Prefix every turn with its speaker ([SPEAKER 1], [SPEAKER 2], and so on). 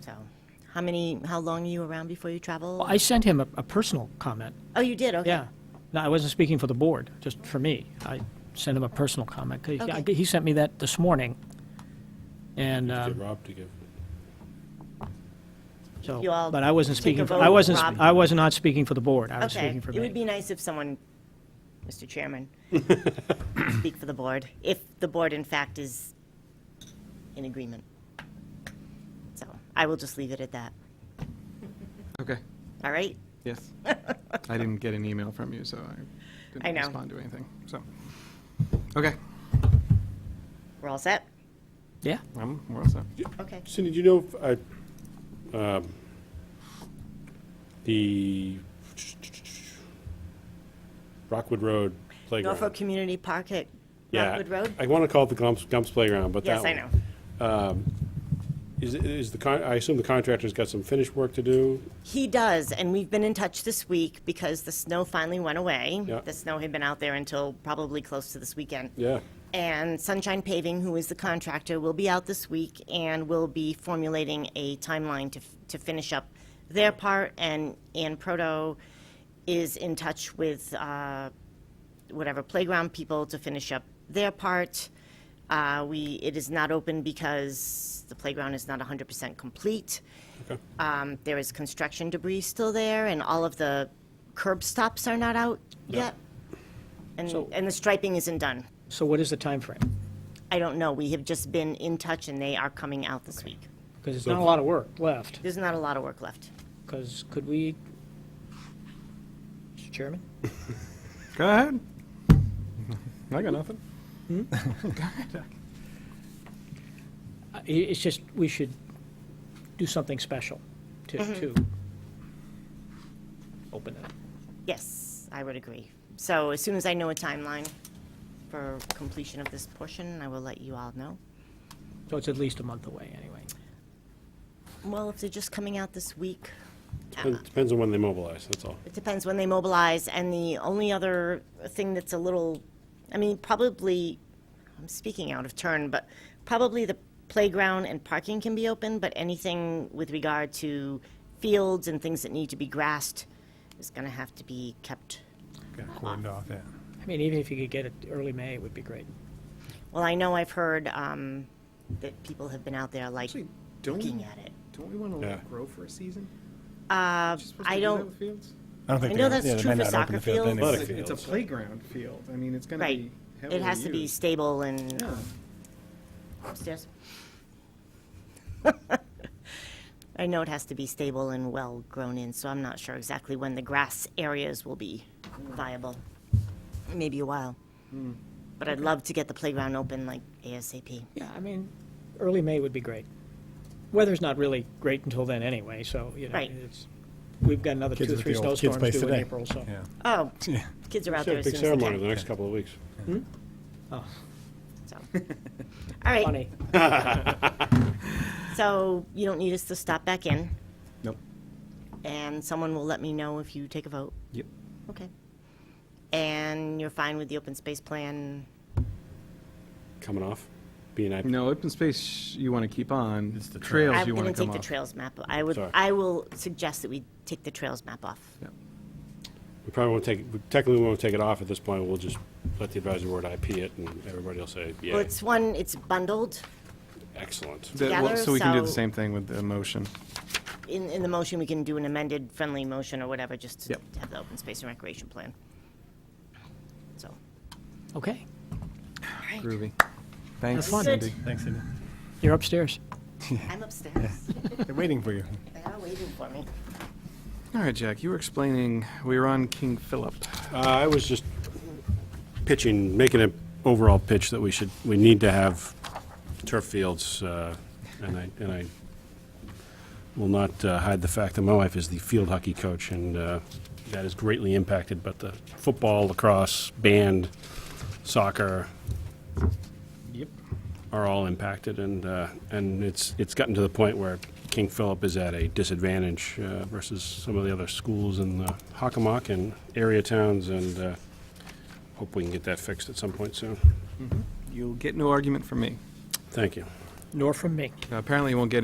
[SPEAKER 1] So, how many, how long are you around before you travel?
[SPEAKER 2] I sent him a, a personal comment.
[SPEAKER 1] Oh, you did, okay.
[SPEAKER 2] Yeah. No, I wasn't speaking for the board, just for me. I sent him a personal comment. 'cause he-
[SPEAKER 1] Okay.
[SPEAKER 2] He sent me that this morning. And,
[SPEAKER 3] Get
[SPEAKER 2] um,
[SPEAKER 3] Rob to give.
[SPEAKER 2] so,
[SPEAKER 1] You all
[SPEAKER 2] but I wasn't
[SPEAKER 1] take a
[SPEAKER 2] speaking, for-
[SPEAKER 1] vote,
[SPEAKER 2] I wasn't, sp-
[SPEAKER 1] Rob?
[SPEAKER 2] I was not speaking for the board. I was
[SPEAKER 1] Okay,
[SPEAKER 2] speaking for
[SPEAKER 1] it would be
[SPEAKER 2] me.
[SPEAKER 1] nice if someone, Mr. Chairman, speak for the board, if the board in fact is in agreement. So, I will just leave it at that,
[SPEAKER 4] Okay,
[SPEAKER 1] all right?
[SPEAKER 4] yes. I didn't get an email from you, so I
[SPEAKER 1] I
[SPEAKER 4] didn't
[SPEAKER 1] know.
[SPEAKER 4] respond to anything, so. Okay,
[SPEAKER 1] We're all set?
[SPEAKER 2] Yeah.
[SPEAKER 4] um, we're all set.
[SPEAKER 1] Okay.
[SPEAKER 3] Cindy, do you know if, uh, um, the Rockwood Road playground?
[SPEAKER 1] Norfolk Community Park at
[SPEAKER 3] Yeah,
[SPEAKER 1] Rockwood Road?
[SPEAKER 3] I want to call it the Gumps, Gumps Playground, but that
[SPEAKER 1] Yes, I
[SPEAKER 3] one.
[SPEAKER 1] know.
[SPEAKER 3] Is, is the, con- I assume the contractor's got some finished work to do?
[SPEAKER 1] He does, and we've been in touch this week because the snow finally went away.
[SPEAKER 3] Yeah.
[SPEAKER 1] The snow had been out there until probably close to this weekend.
[SPEAKER 3] Yeah.
[SPEAKER 1] And Sunshine Paving, who is the contractor, will be out this week and will be formulating a timeline to, f- to finish up their part. And Ann Proto is in touch with uh, whatever playground people to finish up their part. Uh, we, it is not open because the playground is not 100% complete.
[SPEAKER 3] Okay.
[SPEAKER 1] Um, there is construction debris still there, and all of the curb stops are not out yet. And,
[SPEAKER 2] So-
[SPEAKER 1] and the striping isn't done.
[SPEAKER 2] So what is the time frame?
[SPEAKER 1] I don't know. We have just been in touch, and they are coming out this week.
[SPEAKER 2] Because it's not a lot of work left.
[SPEAKER 1] There's not a lot of work left.
[SPEAKER 2] Because could we, Mr. Chairman?
[SPEAKER 4] Go ahead. I got nothing.
[SPEAKER 2] uh, I- It's just, we should do something special to,
[SPEAKER 1] Mm-hmm.
[SPEAKER 2] to open it.
[SPEAKER 1] Yes, I would agree. So as soon as I know a timeline for completion of this portion, I will let you all know.
[SPEAKER 2] So it's at least a month away, anyway.
[SPEAKER 1] Well, if they're just coming out this week,
[SPEAKER 3] Depends-
[SPEAKER 1] Uh-huh.
[SPEAKER 3] Depends on when they mobilize, that's all.
[SPEAKER 1] It depends when they mobilize, and the only other thing that's a little, I mean, probably, I'm speaking out of turn, but probably the playground and parking can be open, but anything with regard to fields and things that need to be grassed is gonna have to be kept.
[SPEAKER 5] Got cordoned off, yeah.
[SPEAKER 2] I mean, even if you could get it early May, it would be great.
[SPEAKER 1] Well, I know I've heard, um, that people have been out there like
[SPEAKER 4] Actually, don't,
[SPEAKER 1] looking
[SPEAKER 4] we-
[SPEAKER 1] at it.
[SPEAKER 4] don't we want to
[SPEAKER 3] Yeah.
[SPEAKER 4] let it grow for a season?
[SPEAKER 1] Uh, I don't,
[SPEAKER 5] I don't think
[SPEAKER 1] I
[SPEAKER 5] they
[SPEAKER 1] know
[SPEAKER 5] are.
[SPEAKER 1] that's
[SPEAKER 5] yeah, they
[SPEAKER 1] true for
[SPEAKER 5] may not open
[SPEAKER 1] soccer
[SPEAKER 5] the field
[SPEAKER 1] fields.
[SPEAKER 3] Athletic
[SPEAKER 5] anyway.
[SPEAKER 4] It's a- it's
[SPEAKER 3] fields.
[SPEAKER 4] a playground field. I mean, it's going to
[SPEAKER 1] right,
[SPEAKER 4] be heavily
[SPEAKER 1] it has to be
[SPEAKER 4] used.
[SPEAKER 1] stable and
[SPEAKER 4] Yeah.
[SPEAKER 1] upstairs. I know it has to be stable and well grown in, so I'm not sure exactly when the grass areas will be viable. Maybe a while. But I'd love to get the playground open like ASAP.
[SPEAKER 2] Yeah, I mean, early May would be great. Weather's not really great until then anyway, so, you know,
[SPEAKER 1] Right.
[SPEAKER 2] it's, we've got another
[SPEAKER 5] Kids
[SPEAKER 2] two,
[SPEAKER 5] at
[SPEAKER 2] three
[SPEAKER 5] the old kids'
[SPEAKER 2] snowstorms
[SPEAKER 5] place
[SPEAKER 2] due in
[SPEAKER 5] today.
[SPEAKER 2] April, so.
[SPEAKER 5] Yeah.
[SPEAKER 1] Oh,
[SPEAKER 5] Yeah.
[SPEAKER 1] kids are out
[SPEAKER 3] Should
[SPEAKER 1] there
[SPEAKER 3] have a
[SPEAKER 1] as soon
[SPEAKER 3] big
[SPEAKER 1] as they
[SPEAKER 3] ceremony in the
[SPEAKER 1] can.
[SPEAKER 3] next couple of weeks.
[SPEAKER 2] Oh,
[SPEAKER 1] so. All right,
[SPEAKER 2] Funny.
[SPEAKER 1] so you don't need us to stop back in,
[SPEAKER 4] Nope.
[SPEAKER 1] and someone will let me know if you take a vote.
[SPEAKER 4] Yep.
[SPEAKER 1] Okay. And you're fine with the open space plan?
[SPEAKER 3] Coming off, being IP.
[SPEAKER 4] No, open space you want to keep on. It's the trails
[SPEAKER 1] I'm
[SPEAKER 4] you want
[SPEAKER 1] gonna
[SPEAKER 4] to come
[SPEAKER 1] take
[SPEAKER 4] off.
[SPEAKER 1] the trails map. I would,
[SPEAKER 3] Sorry.
[SPEAKER 1] I will suggest that we take the trails map off.
[SPEAKER 4] Yeah.
[SPEAKER 3] We probably won't take, we technically won't take it off at this point, we'll just let the advisory board IP it, and everybody will say,
[SPEAKER 1] Well,
[SPEAKER 3] yeah,
[SPEAKER 1] it's one, it's bundled.
[SPEAKER 3] excellent.
[SPEAKER 4] That- well,
[SPEAKER 1] together,
[SPEAKER 4] So we can do the
[SPEAKER 1] so-
[SPEAKER 4] same thing with the motion.
[SPEAKER 1] In, in the motion, we can do an amended friendly motion or whatever, just to
[SPEAKER 4] Yep.
[SPEAKER 1] to have the open space and recreation plan. So,
[SPEAKER 2] Okay,
[SPEAKER 1] all right,
[SPEAKER 4] Groovy. Thanks,
[SPEAKER 2] fun.
[SPEAKER 4] Cindy.
[SPEAKER 5] Thanks, Cindy.
[SPEAKER 2] you're upstairs.
[SPEAKER 1] I'm upstairs.
[SPEAKER 5] They're waiting for you.
[SPEAKER 1] They are waiting for me.
[SPEAKER 4] All right, Jack, you were explaining, we were on King Philip.
[SPEAKER 3] Uh, I was just pitching, making an overall pitch that we should, we need to have turf fields, uh, and I, and I will not uh, hide the fact that my wife is the field hockey coach, and uh, that is greatly impacted, but the football, lacrosse, band, soccer,
[SPEAKER 4] Yep.
[SPEAKER 3] are all impacted, and, uh, and it's, it's gotten to the point where King Philip is at a disadvantage uh, versus some of the other schools in the Hockomock and area towns, and uh, hope we can get that fixed at some point soon.
[SPEAKER 4] You'll get no argument from me.
[SPEAKER 3] Thank you.
[SPEAKER 2] Nor from me.
[SPEAKER 4] Apparently, you won't get